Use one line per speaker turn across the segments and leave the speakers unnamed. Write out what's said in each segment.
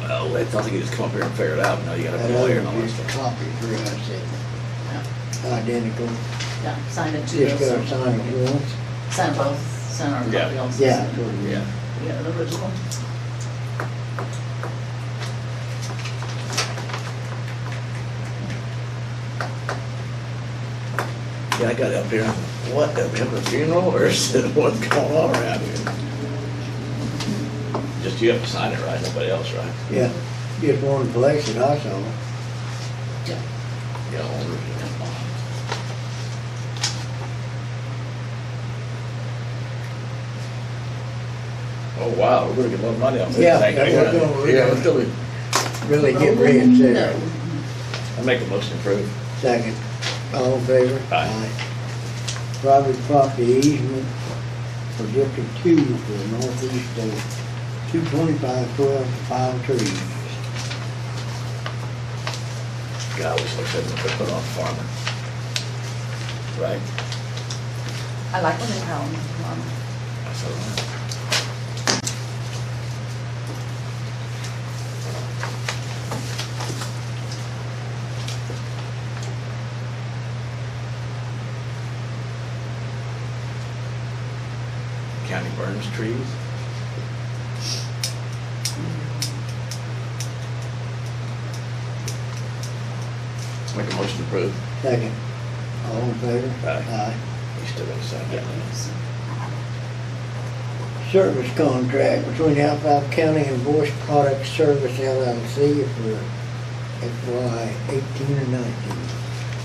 Well, it's not like you just come up here and figure it out, now you gotta
That
go
other
there and all that
is a
stuff.
copy, pretty much, it.
Yeah,
identical,
Yeah, sign the two
just gotta
bills,
sign it once.
sign both, sign our
Yeah.
copy also.
Yeah, that's what it is.
Yeah,
Yeah, the original.
yeah, I got up here, what, up here for a funeral, or is it what's going on around here? Just you have to sign it, right, nobody else, right?
Yeah, just one place that I saw.
Yeah, all original. Oh, wow, we're gonna get a lot of money off this thing.
Yeah, that's what
Yeah,
we're doing.
Yeah, let's do it.
Really get
Rolling
reconsidered.
Oh, no.
I make a motion to approve.
Second, all in favor?
Aye.
Private property easement for District Two for the northeast of two twenty-five twelve five trees.
God, we should have put it on farming. Right?
I like when they tell them, um,
I said, "Wow." County burns trees? Make a motion to approve.
Second, all in favor?
Aye. You still gonna sign that?
Aye. Service contract between Alphafa County and Voice Product Service LLC for FY eighteen and nineteen.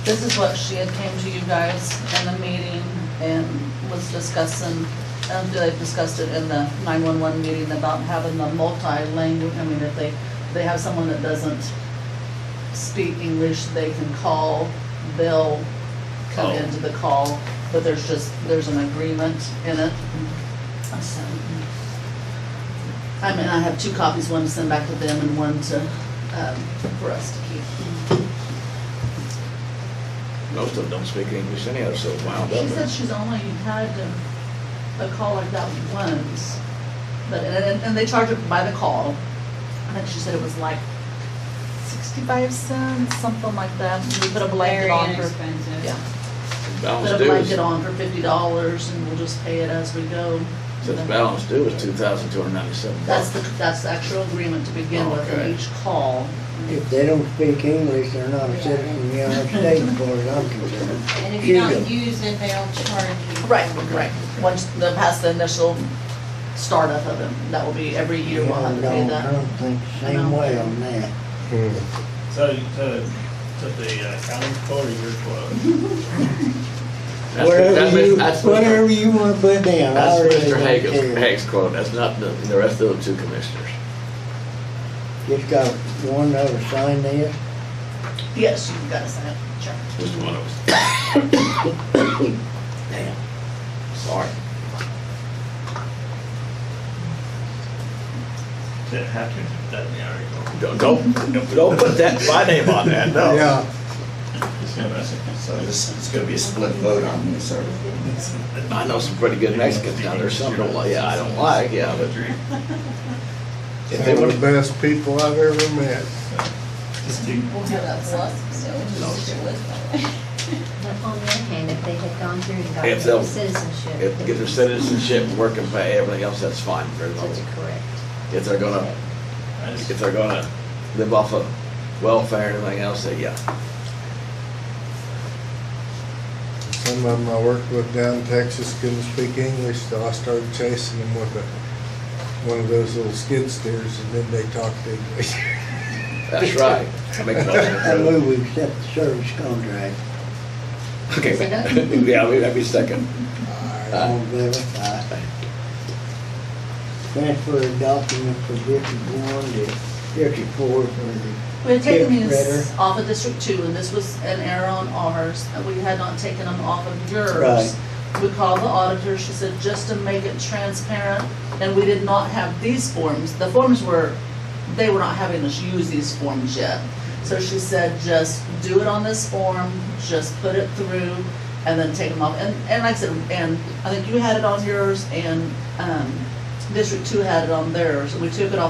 This is what she had came to you guys in the meeting and was discussing, um, they discussed it in the nine-one-one meeting about having the multi-language, I mean, if they, they have someone that doesn't speak English, they can call, they'll come
Oh.
into the call, but there's just, there's an agreement in it. So, I mean, I have two copies, one to send back to them and one to, um, for us to keep.
Most of them don't speak English anyhow, so wound up.
She said she's only had um, a call like that once, but, and, and- and they charge it by the call. I think she said it was like sixty-five cents, something like that, we put a blanket
Very
on her.
inexpensive.
Yeah,
Balance
put a
due is-
blanket on for fifty dollars and we'll just pay it as we go.
Says balance due is two thousand two hundred ninety-seven
That's
bucks.
the, that's the actual agreement to begin with
Okay.
in each call.
If they don't speak English, they're not a citizen of the United States, as far as I'm concerned.
And if you don't
Hugo.
use it, they'll charge you.
Right, right, once the, past the initial startup of it, that will be every year we'll have to
Yeah,
pay
I don't- I
that.
don't think the same way on that.
So, so, so the uh, county court, your quote,
That's- that's
Whatever
Mr.
you,
that's Mr.
whatever you wanna put down, I
That's
really
Mr.
don't
Hagel's,
care.
Hagel's quote, that's not the, the rest of the two commissioners.
Just got one other sign there.
Yes, you've got to sign it, sure.
Just one of us. Damn. Sorry.
did have to, that's the article.
Don't, don't, don't put that, my name on that, no.
It's interesting.
So this is gonna be a split vote on this, or?
I know some pretty good Mexicans down there, some don't like, yeah, I don't like, yeah, but if
Some
they
of the
would,
best people I've ever met.
Just do,
We'll have that plus, so it's just a list.
But on the other hand, if they had gone through and
If they'll-
gotten citizenship.
if, get their citizenship, work and pay, everything else, that's fine, very well.
That's correct.
If they're gonna,
I just,
if they're gonna live off of welfare and everything else, then yeah.
Some of them I worked with down in Texas couldn't speak English, so I started chasing them with a, one of those little skid steers, and then they talked English.
That's right. I make a motion to
I
approve.
move we accept the service contract.
Okay,
Second?
yeah, we- that'd be second.
All in favor? Aye. Transfer a document from District One to District Four for the
We had taken
Dick
these
Ritter.
off of District Two, and this was an error on ours, and we had not taken them off of
Right.
yours. We called the auditor, she said, just to make it transparent, and we did not have these forms. The forms were, they were not having us use these forms yet. So she said, just do it on this form, just put it through, and then take them off. And, and like I said, and I think you had it on yours, and, um, District Two had it on theirs, and we took it off